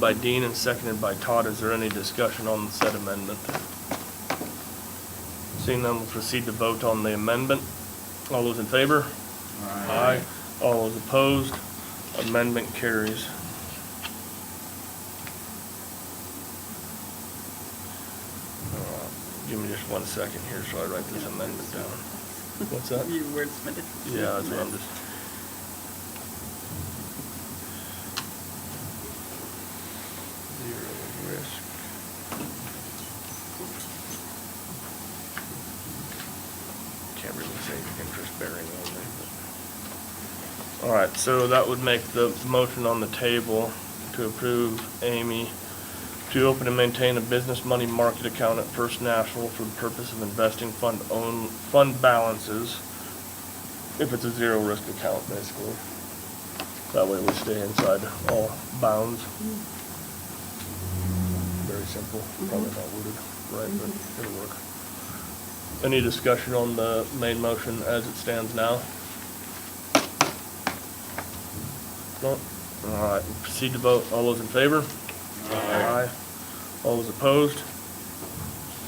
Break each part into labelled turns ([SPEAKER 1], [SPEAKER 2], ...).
[SPEAKER 1] By Dean and seconded by Todd, is there any discussion on said amendment? Seeing none, we'll proceed to vote on the amendment. All those in favor? Aye. All those opposed? Amendment carries. Uh, Give me just one second here so I write this amendment down. What's that?
[SPEAKER 2] You wordsmithed it.
[SPEAKER 1] Yeah, that's what I'm just. Zero risk. Can't really say interest bearing on there, but. All right, so that would make the motion on the table to approve Amy to open and maintain a business money market account at First National for the purpose of investing fund own, fund balances if it's a zero risk account, basically. That way we stay inside all bounds. Very simple, probably not worded right, but it'll work. Any discussion on the main motion as it stands now? No? All right, proceed to vote. All those in favor? Aye. All those opposed?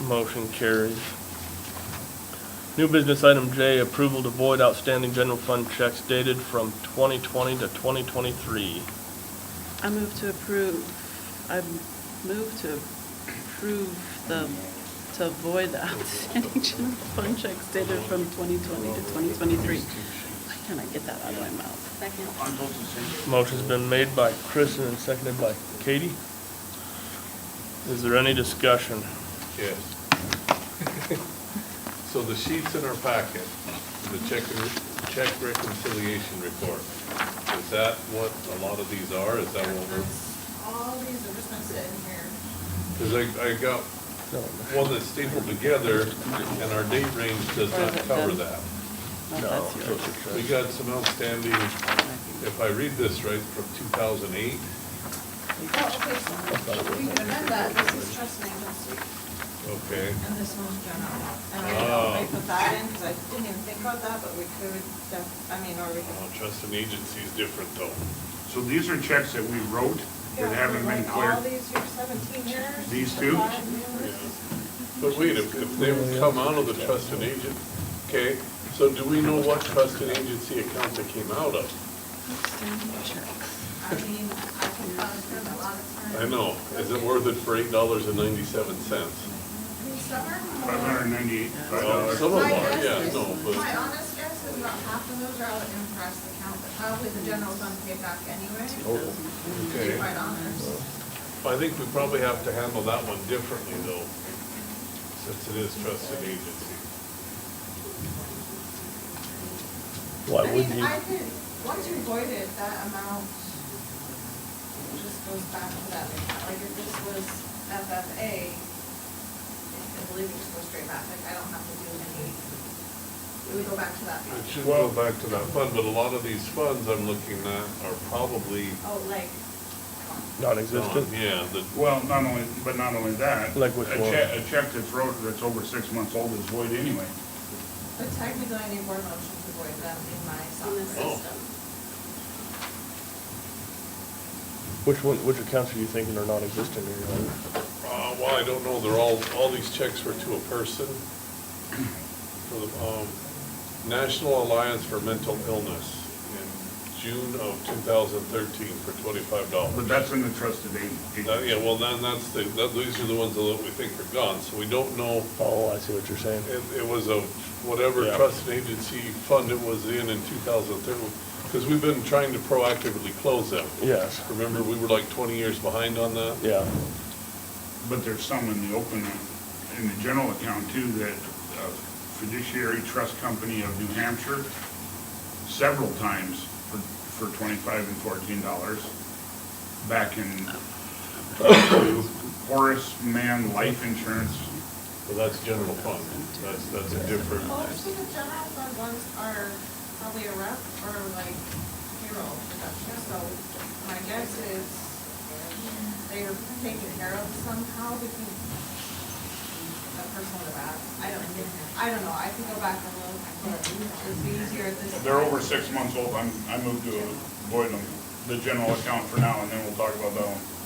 [SPEAKER 1] Motion carries. New business item J, approval to void outstanding general fund checks dated from 2020 to 2023.
[SPEAKER 2] I move to approve, I move to approve the, to avoid the outstanding general fund checks dated from 2020 to 2023. Why can't I get that out of my mouth?
[SPEAKER 3] Second.
[SPEAKER 1] Motion's been made by Kristen and seconded by Katie. Is there any discussion?
[SPEAKER 4] Yes. So the sheets in our packet, the check, check reconciliation report, is that what a lot of these are? Is that what we're?
[SPEAKER 5] All these are just gonna sit in here.
[SPEAKER 4] Because I, I got
[SPEAKER 1] No.
[SPEAKER 4] one that's stapled together and our date range does not cover that.
[SPEAKER 2] No,
[SPEAKER 1] No,
[SPEAKER 2] that's
[SPEAKER 1] those
[SPEAKER 2] yours.
[SPEAKER 1] are
[SPEAKER 4] We
[SPEAKER 1] checks.
[SPEAKER 4] got some outstanding, if I read this right, from two thousand eight.
[SPEAKER 5] Well, Oh, okay, so we can amend that, this is trust and agency,
[SPEAKER 4] Okay,
[SPEAKER 5] and this one's general. And I don't know if I put that in, because I didn't even think about that, but we could, def- I mean, or we
[SPEAKER 4] well,
[SPEAKER 5] could.
[SPEAKER 4] Uh, trust and agency is different though.
[SPEAKER 6] So these are checks that we wrote that haven't been
[SPEAKER 5] Yeah, we want All
[SPEAKER 6] cleared.
[SPEAKER 5] these here, seventeen years.
[SPEAKER 6] These
[SPEAKER 5] the
[SPEAKER 6] two?
[SPEAKER 5] five years.
[SPEAKER 4] But wait, if, if they would come out of the trust and agent, okay, so do we know what trust and agency account they came out of?
[SPEAKER 2] Outstanding checks.
[SPEAKER 5] I mean, I can probably spend a lot of time.
[SPEAKER 4] I know, is it worth it for eight dollars and ninety-seven cents?
[SPEAKER 5] Summer?
[SPEAKER 6] Five hundred and ninety-eight
[SPEAKER 4] Well,
[SPEAKER 6] dollars.
[SPEAKER 4] some of
[SPEAKER 5] My
[SPEAKER 4] them are,
[SPEAKER 5] guess
[SPEAKER 4] yeah,
[SPEAKER 5] is-
[SPEAKER 4] no,
[SPEAKER 5] My
[SPEAKER 4] but,
[SPEAKER 5] honest guess is about half of those are out in trust account, but probably the general's unpaid back anyway, to be
[SPEAKER 4] okay.
[SPEAKER 5] quite honest.
[SPEAKER 4] I think we probably have to handle that one differently though, since it is trust and agency.
[SPEAKER 1] Why
[SPEAKER 5] I
[SPEAKER 1] would
[SPEAKER 5] mean,
[SPEAKER 1] you?
[SPEAKER 5] I could, once you void it, that amount just goes back to that account, like if this was FFA, I believe it just goes straight back, like I don't have to do any, it would go back to that.
[SPEAKER 4] It should go back to that fund, but a lot of these funds I'm looking at are probably.
[SPEAKER 5] Oh, like,
[SPEAKER 1] Non-existent?
[SPEAKER 4] gone. Yeah, the,
[SPEAKER 6] Well, not only, but not only that.
[SPEAKER 1] Like which
[SPEAKER 6] a
[SPEAKER 1] one?
[SPEAKER 6] check- A check that's wrote that's over six months old is void anyway.
[SPEAKER 5] but technically I need board motion to void them in my
[SPEAKER 3] On the
[SPEAKER 5] software.
[SPEAKER 3] system.
[SPEAKER 1] Which one, which accounts are you thinking are non-existent in your own?
[SPEAKER 4] Uh, well, I don't know, they're all, all these checks were to a person. For the, um, National Alliance for Mental Illness in June of two thousand thirteen for twenty-five
[SPEAKER 6] But
[SPEAKER 4] dollars.
[SPEAKER 6] that's in the trusted
[SPEAKER 4] That, yeah,
[SPEAKER 6] agency.
[SPEAKER 4] well, then that's the, that, these are the ones that we think are gone, so we don't know,
[SPEAKER 1] Oh, I see what you're saying.
[SPEAKER 4] it, it was a, whatever
[SPEAKER 1] Yeah.
[SPEAKER 4] trust and agency fund it was in in two thousand thirteen. Because we've been trying to proactively close them.
[SPEAKER 1] Yes,
[SPEAKER 4] Remember, we were like twenty years behind on that?
[SPEAKER 1] yeah,
[SPEAKER 6] But there's some in the open, in the general account too, that uh, fiduciary trust company of New Hampshire, several times for, for twenty-five and fourteen dollars back in uh, Horace Mann Life Insurance
[SPEAKER 4] Well, that's general fund, that's, that's a different.
[SPEAKER 5] Most of the general fund ones are probably a rep or like payroll deduction, so my guess is they are taken care of somehow because that person would have asked. I don't, I don't know, I can go back and look, but it'd be easier at this.
[SPEAKER 6] They're
[SPEAKER 5] time.
[SPEAKER 6] over six months old, I'm, I moved to avoid them, the general account for now, and then we'll talk about that one.